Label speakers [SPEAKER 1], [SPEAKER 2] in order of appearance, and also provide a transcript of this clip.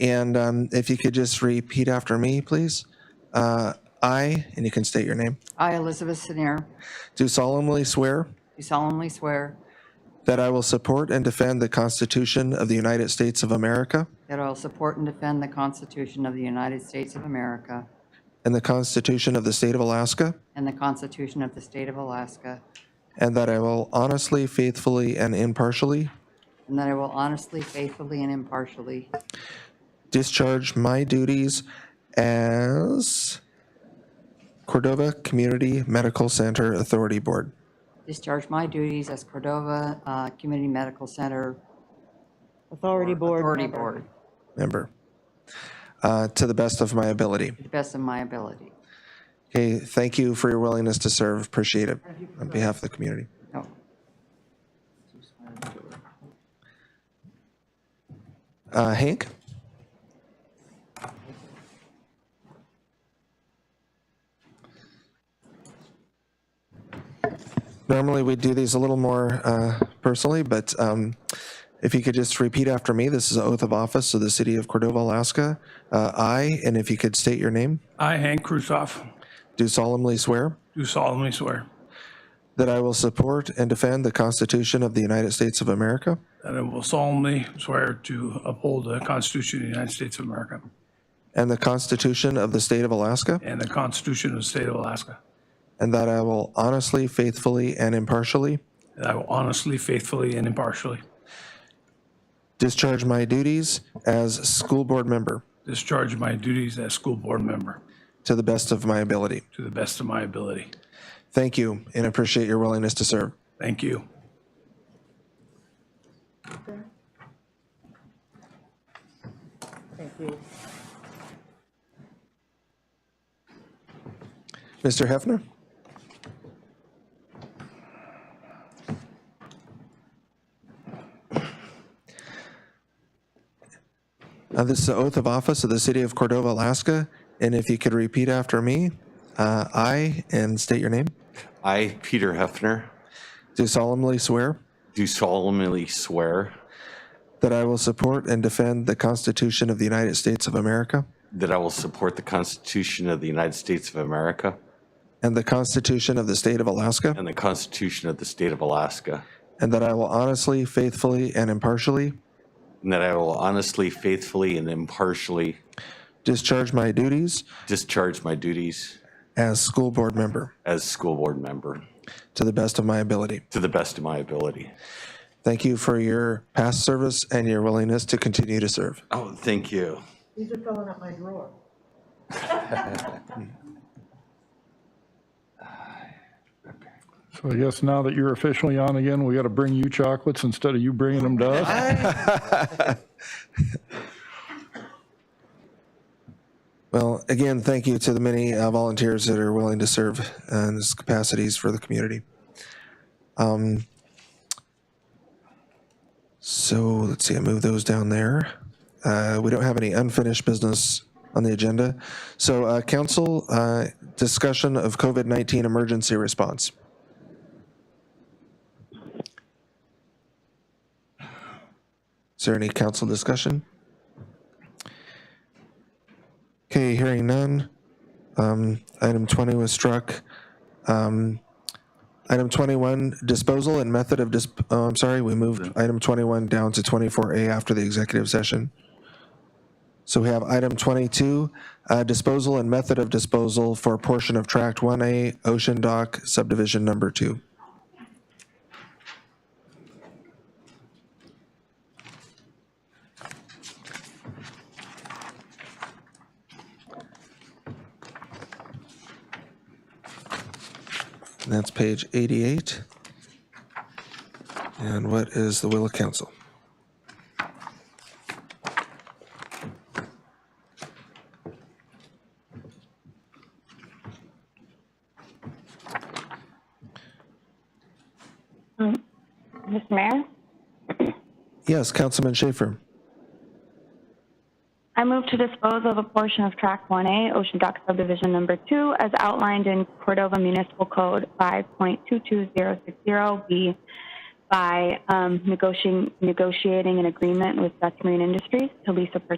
[SPEAKER 1] And um, if you could just repeat after me, please. Uh, I, and you can state your name,
[SPEAKER 2] I, Elizabeth Senior,
[SPEAKER 1] do solemnly swear
[SPEAKER 2] do solemnly swear
[SPEAKER 1] that I will support and defend the Constitution of the United States of America
[SPEAKER 2] that I will support and defend the Constitution of the United States of America
[SPEAKER 1] and the Constitution of the State of Alaska,
[SPEAKER 2] and the Constitution of the State of Alaska,
[SPEAKER 1] and that I will honestly, faithfully, and impartially
[SPEAKER 2] and that I will honestly, faithfully, and impartially
[SPEAKER 1] discharge my duties as Cordova Community Medical Center Authority Board
[SPEAKER 2] discharge my duties as Cordova uh, Community Medical Center
[SPEAKER 3] Authority Board.
[SPEAKER 2] Authority
[SPEAKER 3] member.
[SPEAKER 2] Board
[SPEAKER 1] member uh, to the best of my ability.
[SPEAKER 2] to the best of my ability.
[SPEAKER 1] Okay, thank you for your willingness to serve. Appreciate it on behalf of the community.
[SPEAKER 2] No.
[SPEAKER 1] Uh, Hank? Normally, we do these a little more uh, personally, but um, if you could just repeat after me, this is an oath of office of the city of Cordova, Alaska. Uh, I, and if you could state your name,
[SPEAKER 4] I, Hank Krusoff,
[SPEAKER 1] do solemnly swear
[SPEAKER 4] do solemnly swear
[SPEAKER 1] that I will support and defend the Constitution of the United States of America
[SPEAKER 4] that I will solemnly swear to uphold the Constitution of the United States of America
[SPEAKER 1] and the Constitution of the State of Alaska,
[SPEAKER 4] and the Constitution of the State of Alaska,
[SPEAKER 1] and that I will honestly, faithfully, and impartially
[SPEAKER 4] that I will honestly, faithfully, and impartially
[SPEAKER 1] Discharge my duties as school board member
[SPEAKER 4] discharge my duties as school board member
[SPEAKER 1] to the best of my ability.
[SPEAKER 4] to the best of my ability.
[SPEAKER 1] Thank you and appreciate your willingness to serve.
[SPEAKER 4] Thank you.
[SPEAKER 3] Thank you.
[SPEAKER 1] Mr. Hefner? Uh, This is the oath of office of the city of Cordova, Alaska, and if you could repeat after me, uh, I, and state your name,
[SPEAKER 5] I, Peter Hefner,
[SPEAKER 1] do solemnly swear
[SPEAKER 5] do solemnly swear
[SPEAKER 1] that I will support and defend the Constitution of the United States of America
[SPEAKER 5] that I will support the Constitution of the United States of America
[SPEAKER 1] and the Constitution of the State of Alaska
[SPEAKER 5] and the Constitution of the State of Alaska,
[SPEAKER 1] And that I will honestly, faithfully, and impartially
[SPEAKER 5] and that I will honestly, faithfully, and impartially
[SPEAKER 1] discharge my duties
[SPEAKER 5] discharge my duties
[SPEAKER 1] as school board member
[SPEAKER 5] as school board member
[SPEAKER 1] to the best of my ability.
[SPEAKER 5] to the best of my ability.
[SPEAKER 1] Thank you for your past service and your willingness to continue to serve.
[SPEAKER 5] Oh, thank you.
[SPEAKER 3] These are filling up my drawer.
[SPEAKER 6] So I guess now that you're officially on again, we got to bring you chocolates instead of you bringing them to us.
[SPEAKER 1] Well, again, thank you to the many uh, volunteers that are willing to serve uh, in these capacities for the community. Um, So let's see, I move those down there. Uh, We don't have any unfinished business on the agenda. So uh, council, uh, discussion of COVID-19 emergency response. Is there any council discussion? Okay, hearing none. Um, Item 20 was struck. Um, Item 21, disposal and method of, dis- oh, I'm sorry, we moved item 21 down to 24A after the executive session. So we have item 22, uh, disposal and method of disposal for a portion of tract 1A Ocean Dock subdivision number two. And that's page 88. And what is the will of council?
[SPEAKER 7] Mr. Mayor,
[SPEAKER 1] Yes, Councilman Schaefer.
[SPEAKER 7] I move to dispose of a portion of Track 1A, Ocean Dock Subdivision Number 2, as outlined in Cordova Municipal Code 5.22060B by um, negotiating, negotiating an agreement with Dutch Marine Industries to lease a purchase